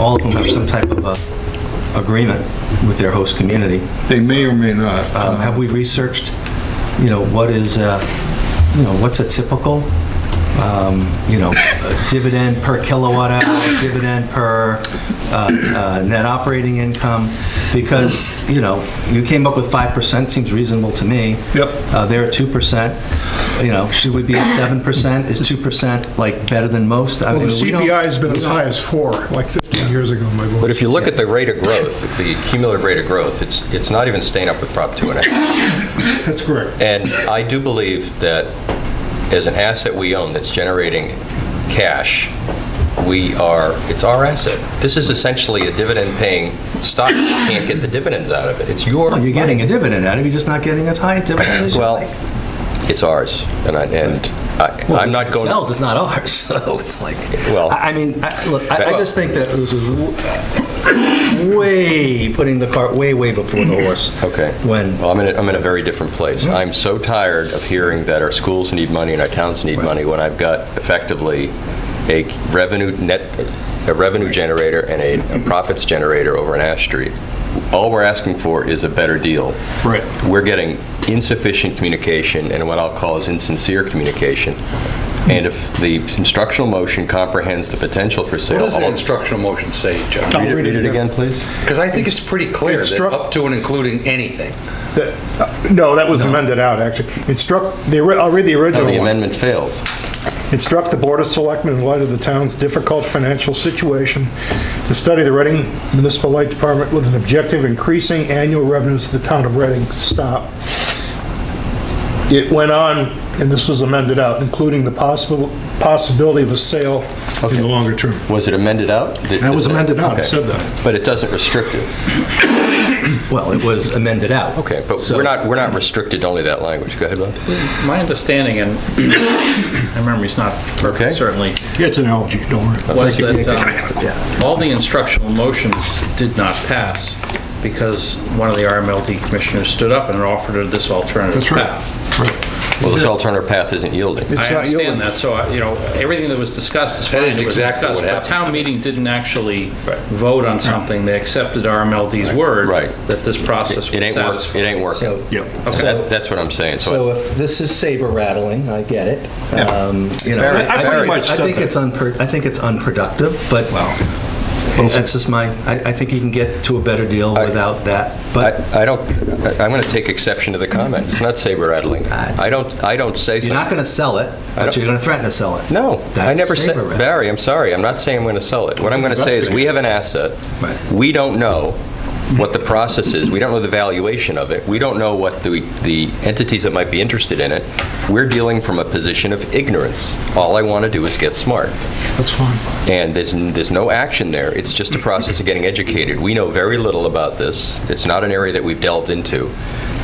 all of them have some type of a agreement with their host community. They may or may not. uh, Um, Have we researched, you know, what is, uh, you know, what's a typical, um, you know, dividend per kilowatt hour, dividend per uh, uh, net operating income? Because, you know, you came up with 5%, seems reasonable to me. Yep. Uh, They're at 2%, you know, should we be at 7%? Is 2% like better than most? I Well, the mean, we don't- CPI has been as high as four, like 15 years ago, my boy. But if you look at the rate of growth, the cumulative rate of growth, it's, it's not even staying up with Prop 2 and a half. That's correct. And I do believe that as an asset we own that's generating cash, we are, it's our asset. This is essentially a dividend-paying stock. You can't get the dividends out of it. It's your Well, Oh, You're money. getting a dividend out of it, you're just not getting as high a dividend as you Well, like. it's ours, and I, and I- Well, I'm not It going. sells, it's not ours, so it's like, Well- I I mean, I- look, I I Well- just think that this was w- way, putting the cart way, way before the horse. Okay. When, Well, I'm in, a, I'm in a very different place. I'm so tired of hearing that our schools need money and our towns need money when I've got effectively a revenue net, a revenue generator and a, a profits generator over in Ash Street. All we're asking for is a better deal. Right. We're getting insufficient communication and what I'll call is insincere communication. And if the instructional motion comprehends the potential for What sale, does the I'll- instructional motion say, John? I'll read it, read it read it again. again, please. Because I think it's pretty clear that Instruct- up to and including anything. That- uh, No, that was amended out, actually. Instruct, the ori- I'll read the No, original the one. amendment failed. Instruct the Board of Selectmen in light of the town's difficult financial situation to study the Reading Municipal Light Department with an objective of increasing annual revenues to the town of Reading. Stop. It went on, and this was amended out, including the possible, possibility of a sale in the longer term. Was it amended out? That was amended out, it Okay. said that. But it doesn't restrict it. well, it was amended out. Okay, but So- we're not, we're not restricted to only that language. Go ahead, Bob. My understanding, and my memory's not Okay. perfect, certainly, It's an algae, don't worry. was that Yeah. um, all the instructional motions did not pass because one of the RMLD commissioners stood up and offered this alternative That's right. path. Well, this alternative path isn't yielding. It's I not yours. understand that, so, I- you know, everything that was discussed is fine. That is it was exactly discussed, what happened. But town meeting didn't actually Right. vote on something. They accepted RMLD's word Right. that this process It would ain't work. satisfy. It ain't working. So- Yep. So that- That's what I'm saying. So So if this is saber rattling, I get it. Um, You know, Very- I- I very think much it's- I said think that. it's unpro- I think it's unproductive, but that's just my, I I think you can get to a better deal without that, but I I don't, I- I'm going to take exception to the comment. It's not saber rattling. I don't, I don't say you're not something. going to sell it, but don't- you're going to threaten to sell it. No, I That's never said, saber rattling. Barry, I'm sorry. I'm not saying I'm going to sell it. What I'm going to say is we have an asset. Right. We don't know what the process is. We don't know the valuation of it. We don't know what the, the entities that might be interested in it. We're dealing from a position of ignorance. All I want to do is get smart. That's fine. And there's, there's no action there. It's just a process of getting educated. We know very little about this. It's not an area that we've delved into.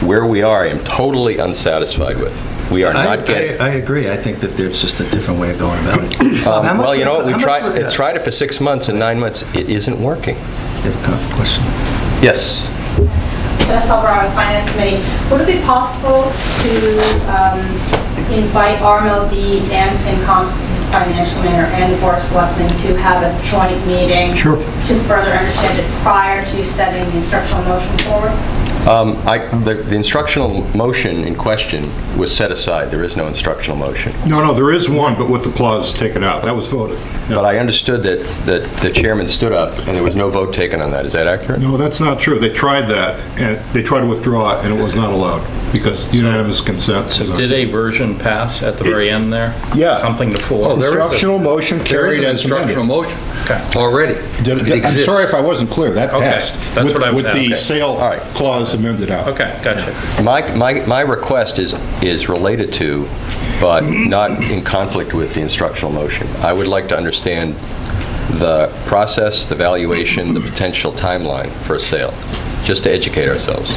Where we are, I am totally unsatisfied with. We are I- not getting. I I agree. I think that there's just a different way of going about it. Um, How much Well, you would- know what, we've how much tried, would- it's tried it for six months and nine months, it isn't working. You have a comment, Question. Yes. Vanessa Alvarado, Finance Committee. Would it be possible to um, invite RMLD and FinCom's financial manager and the Board of Selectmen to have a joint meeting? Sure. To further understand it prior to setting the instructional motion forward? Um, I, the the instructional motion in question was set aside. There is no instructional motion. No, no, there is one, but with the clause taken out. That was voted. But I understood that, that the chairman stood up and there was no vote taken on that. Is that accurate? No, that's not true. They tried that, and they tried to withdraw it, and it was not allowed because unanimous consent. is So not- did a version pass at the very end there? Yeah. Something to Oh, four. there is a- Instructional motion There is carried an as amended. instructional motion Okay. already. Did It it- I'm exists. sorry if I wasn't clear. That Okay, passed. that's with- what I was With the asking. sale All right. clause amended out. Okay, gotcha. My, my, my request is, is related to, but not in conflict with the instructional motion. I would like to understand the process, the valuation, the potential timeline for a sale, just to educate ourselves.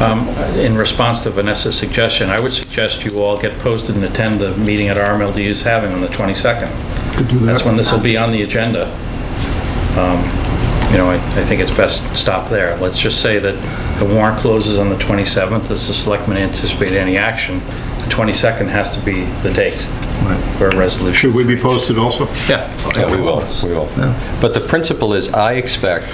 Um, In response to Vanessa's suggestion, I would suggest you all get posted and attend the meeting at RMLD is having on the 22nd. Could do that. That's when this will be on the agenda. Um, You know, I I think it's best stop there. Let's just say that the warrant closes on the 27th, as the selectmen anticipate any action. The 22nd has to be the date. or a resolution. Should we be posted also? Yeah. Yeah, we will, we will. But the principle is, I expect